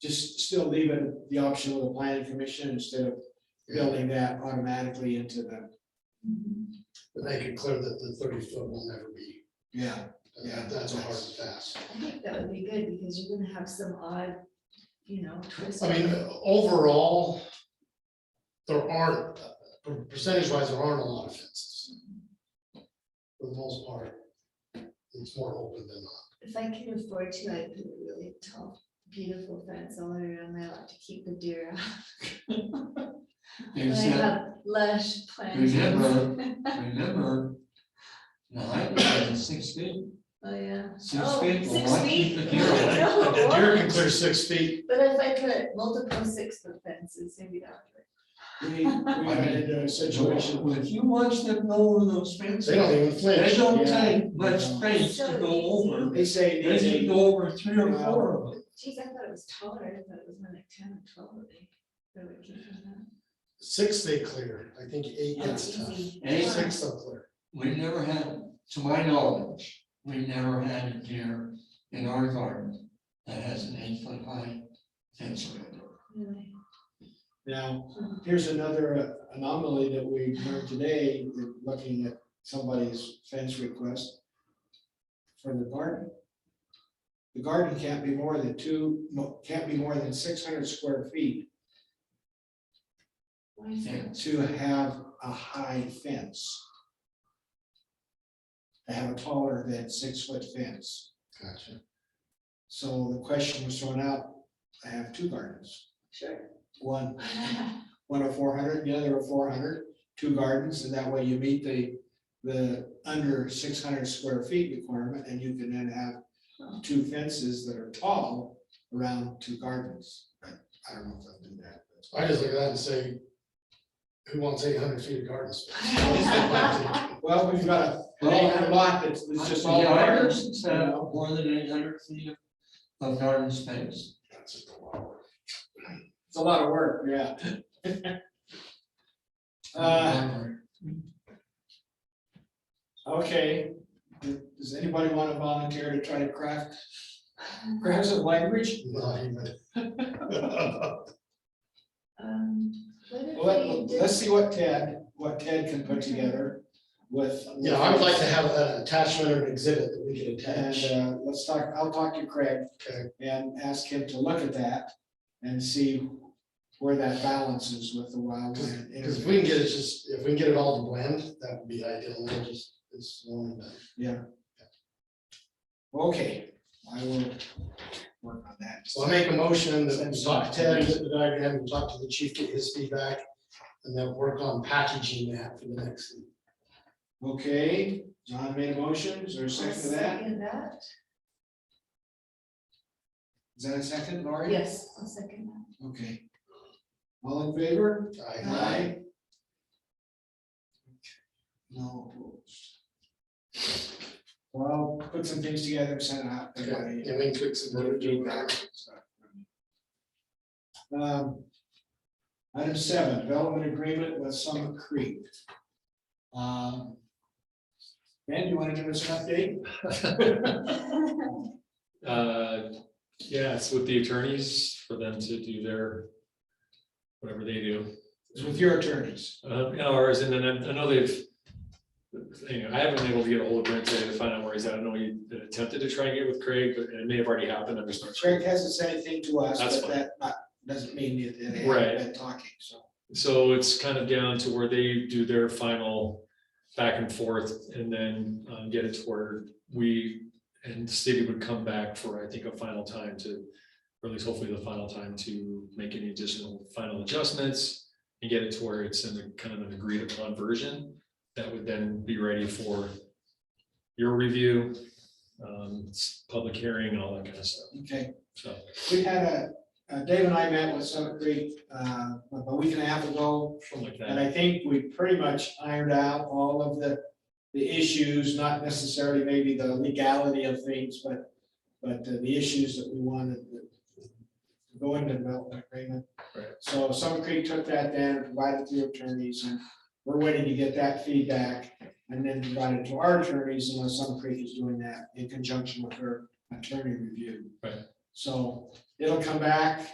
just still leave it the option of the planning commission instead of building that automatically into the, But they could clear that the thirty foot will never be, yeah, Yeah, that- that's a hard that's- and fast. I think that would be good because you're gonna have some odd, you know, twist. I mean, overall, there aren't, percentage wise, there aren't a lot of fences. For the most part, it's more open than not. If I can afford to, I'd put a really tall, beautiful fence all around my lot to keep the deer out. And I Except, have lush plants. remember, remember, the height was six feet, Oh, yeah. six Oh, feet, well, six why feet. keep the deer away? No, The deer can what? clear six feet, But if I put multiple six foot fences, maybe that would. work. we, we got into a situation Well, with. If you watch them go over those fences, they don't they even flinch. don't Yeah. take much space to So go easy. over. They say, They they can go over three or four of them. Geez, I thought it was taller, I thought it was more like ten or twelve, I think. But we can do that. Six they clear, I think eight Oh, gets tough. easy. Eight, Wow. Six they'll clear. We've never had, to my knowledge, we've never had a deer in our garden that has an eight foot high fence around it. Really. Hmm. now, here's another uh, anomaly that we learned today, looking at somebody's fence request for the garden. The garden can't be more than two, no, can't be more than six hundred square feet Why is that? Fence. to have a high fence. To have a taller than six foot fence. Gotcha. So the question was thrown out, I have two gardens, Sure. one, one of four hundred, the other of four hundred, two gardens, and that way you meet the, the under six hundred square feet requirement, and you can then have two fences that are tall around two gardens. I I don't know if they'll do that. I just look at that and say, who wants eight hundred feet of garden Um, space? Well, we've got a, Well, a lot that's, that's just all Yeah, I gardens. understand it's, uh, more than eight hundred feet of- of garden space. That's just a lot of work. It's a lot of work, yeah. Uh, okay, D- does anybody want to volunteer to try to craft, craft some language? Not even. Um, What if Well, let- we did? let's see what Ted, what Ted can put together with. Yeah, I would like to have an attachment or an exhibit that we could And, attach. uh, let's talk, I'll talk to Craig Okay. and ask him to look at that and see where that balances with the wildland. Because if we can get it just, if we can get it all to blend, that would be ideal, and then just, it's one, but Okay, I will work on that. So I make a motion that we talk to Ted, that I have him talk to the chief, get his feedback, and then work on packaging that for the next. Okay, John made a motion, is there a I'll second to that? Second that, Is that a second, Laurie? yes, I'll second that. Okay. All in favor? I- Aye. No opposed. Well, put some things together and send it out. Okay, And we can tweak some verbiage or whatever. Um, Item seven, development agreement with Summit Creek. Um, Ben, you want to give us an update? Uh, yeah, it's with the attorneys for them to do their, whatever they do. It's with your attorneys. Uh, yeah, or is it, and I I know they've, you know, I haven't been able to get a hold of Brent today to find out where he's at. I know he attempted to try and get with Craig, but it may have already happened. I'm just not sure. Craig hasn't said anything to us, That's but fine. that not- doesn't mean that they Right. haven't been talking, so. So it's kind of down to where they do their final back and forth and then um, get it to where we and the city would come back for, I think, a final time to, or at least hopefully the final time to make any additional final adjustments and get it to where it's in the kind of an agreed upon version that would then be ready for your review, um, s- public hearing and all that kind of stuff. Okay. So We had a, uh, Dave and I met with Summit Creek uh, a week and a half ago, something like and that. I think we pretty much ironed out all of the, the issues, not necessarily maybe the legality of things, but, but uh, the issues that we wanted to go into development agreement. Right. So Summit Creek took that then, and provided to your attorneys, and we're waiting to get that feedback, and then provide it to our attorneys, unless Summit Creek is doing that in conjunction with her attorney review. Right. So it'll come back